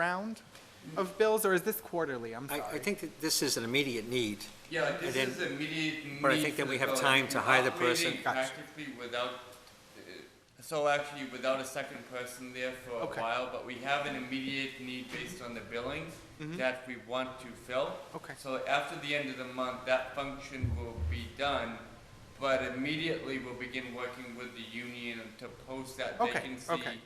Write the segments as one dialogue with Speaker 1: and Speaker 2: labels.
Speaker 1: round of bills, or is this quarterly? I'm
Speaker 2: I,
Speaker 1: sorry.
Speaker 2: I think that this is an immediate need.
Speaker 3: Yeah, this
Speaker 2: then-
Speaker 3: is immediate need.
Speaker 2: but I think that we have time to hire the person.
Speaker 1: Gotcha.
Speaker 3: Practically without, uh, so actually without a second person there for a
Speaker 1: Okay.
Speaker 3: while, but we have an immediate need based on the billing
Speaker 2: Mm-hmm.
Speaker 3: that we want to fill.
Speaker 1: Okay.
Speaker 3: So after the end of the month, that function will be done, but immediately we'll begin working with the union to post that
Speaker 1: Okay,
Speaker 3: vacancy.
Speaker 1: okay.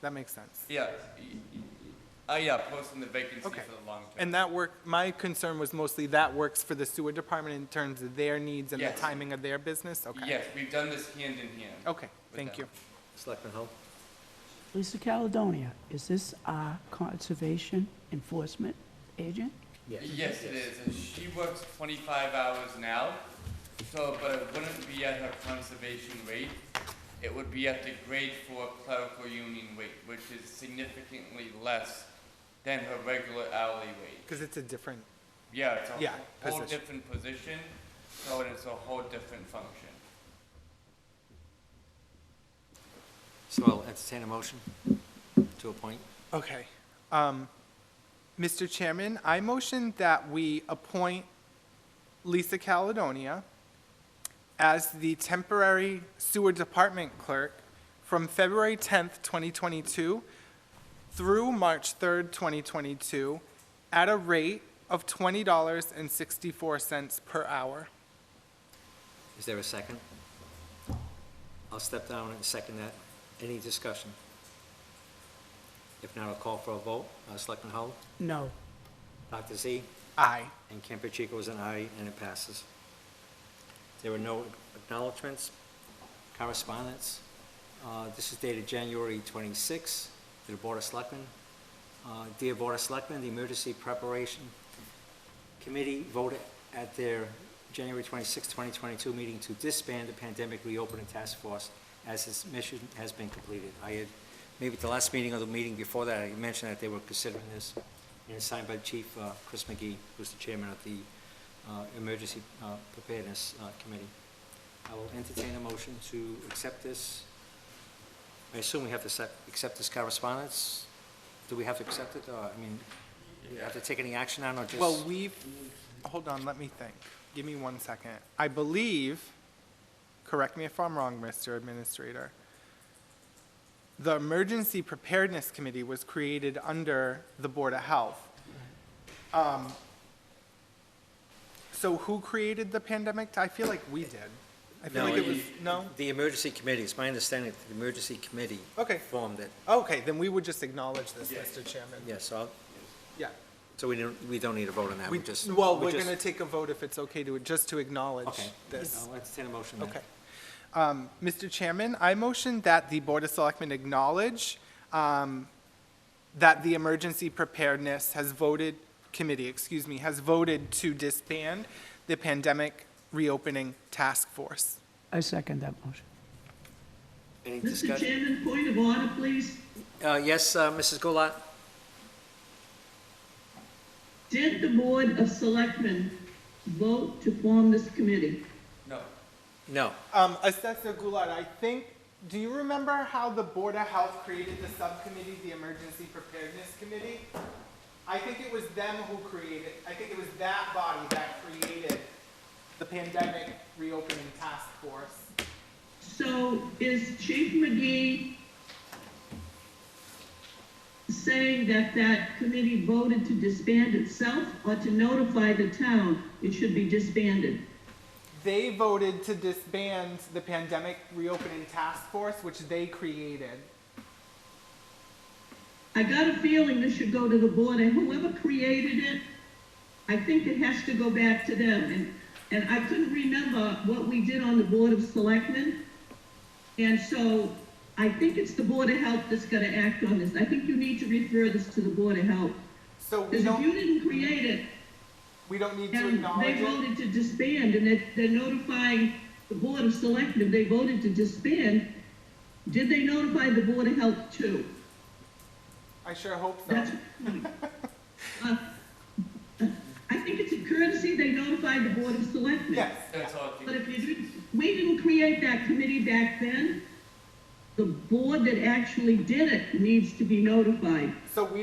Speaker 1: That makes sense.
Speaker 3: Yeah, y- y- y- uh, yeah, posting the vacancy for
Speaker 1: Okay.
Speaker 3: the long term.
Speaker 1: And that work, my concern was mostly that works for the sewer department in terms of their needs and the
Speaker 3: Yes.
Speaker 1: timing of their business? Okay.
Speaker 3: Yes, we've done this hand in hand.
Speaker 1: Okay,
Speaker 3: With
Speaker 1: thank
Speaker 3: that.
Speaker 1: you.
Speaker 2: Selectman Hull?
Speaker 4: Lisa Caledonia, is this our conservation enforcement agent?
Speaker 3: Yes, it is, and she works twenty-five hours now, so, but it wouldn't be at her conservation rate. It would be at the grade four clerical union rate, which is significantly less than her regular hourly rate.
Speaker 1: Because it's a different,
Speaker 3: Yeah, it's
Speaker 1: Yeah,
Speaker 3: a whole
Speaker 1: position.
Speaker 3: different position, so it's a whole different function.
Speaker 2: So I'll entertain a motion to appoint.
Speaker 1: okay. Um, Mr. Chairman, I motion that we appoint Lisa Caledonia as the temporary sewer department clerk from February 10th, 2022 through March 3rd, 2022, at a rate of $20.64 per hour.
Speaker 2: Is there a second? I'll step down and second that. Any discussion? If not, I'll call for a vote. Uh, Selectman Hull?
Speaker 4: No.
Speaker 2: Dr. Z?
Speaker 1: Aye.
Speaker 2: And Campuchico is an aye, and it passes. There were no acknowledgements, correspondence. Uh, This is dated January 26, to the Board of Selectmen. Uh, Dear Board of Selectmen, the Emergency Preparation Committee voted at their January 26, 2022 meeting to disband the Pandemic Reopening Task Force as its mission has been completed. I had, maybe at the last meeting or the meeting before that, I mentioned that they were considering this, and it's signed by Chief uh, Chris McGee, who's the chairman of the uh, Emergency uh, Preparedness uh, Committee. I will entertain a motion to accept this. I assume we have to accept- accept this correspondence? Do we have to accept it, or, I mean, do we have to take any action on it, or just?
Speaker 1: Well, we've, hold on, let me think. Give me one second. I believe, correct me if I'm wrong, Mr. Administrator, the Emergency Preparedness Committee was created under the Board of Health. Um, So who created the pandemic? I feel like we did. I feel
Speaker 2: No,
Speaker 1: like it
Speaker 2: you-
Speaker 1: was, no?
Speaker 2: The emergency committee, it's my understanding that the emergency committee.
Speaker 1: Okay.
Speaker 2: Formed it,
Speaker 1: Okay, then we would just acknowledge this, Mr. Chairman.
Speaker 2: yeah, so, I'll-
Speaker 1: Yeah.
Speaker 2: so we don't, we don't need a vote on that, we
Speaker 1: We,
Speaker 2: just.
Speaker 1: well,
Speaker 2: we
Speaker 1: we're
Speaker 2: just-
Speaker 1: going to take a vote if it's okay to, just to acknowledge
Speaker 2: Okay.
Speaker 1: this.
Speaker 2: I'll entertain a motion then.
Speaker 1: Okay. Um, Mr. Chairman, I motion that the Board of Selectmen acknowledge um, that the Emergency Preparedness has voted, committee, excuse me, has voted to disband the Pandemic Reopening Task Force.
Speaker 4: I second that motion.
Speaker 2: Any
Speaker 5: Mr.
Speaker 2: discussion?
Speaker 5: Chairman, point of order, please.
Speaker 2: Uh, yes, uh, Mrs. Goulart?
Speaker 5: Did the Board of Selectmen vote to form this committee?
Speaker 3: No,
Speaker 2: No,
Speaker 1: Um, Assessor Goulart, I think, do you remember how the Board of Health created the subcommittee, the Emergency Preparedness Committee? I think it was them who created, I think it was that body that created the Pandemic Reopening Task Force.
Speaker 5: So is Chief McGee saying that that committee voted to disband itself or to notify the town it should be disbanded?
Speaker 1: They voted to disband the Pandemic Reopening Task Force, which they created.
Speaker 5: I got a feeling this should go to the board, and whoever created it, I think it has to go back to them, and, and I couldn't remember what we did on the Board of Selectmen. And so, I think it's the Board of Health that's gonna act on this, I think you need to refer this to the Board of Health.
Speaker 1: So we
Speaker 5: Because if you
Speaker 1: don't,
Speaker 5: didn't create it,
Speaker 1: we don't need to
Speaker 5: and
Speaker 1: acknowledge
Speaker 5: they
Speaker 1: it.
Speaker 5: voted to disband, and they're, they're notifying the Board of Selectmen, they voted to disband, did they notify the Board of Health too?
Speaker 1: I sure hope so.
Speaker 5: That's funny. Uh, I think it's a courtesy they notified the Board of Selectmen.
Speaker 1: Yes, yeah.
Speaker 3: that's all. it is.
Speaker 5: But if you didn't, we didn't create that committee back then. The board that actually did it needs to be notified.
Speaker 1: So we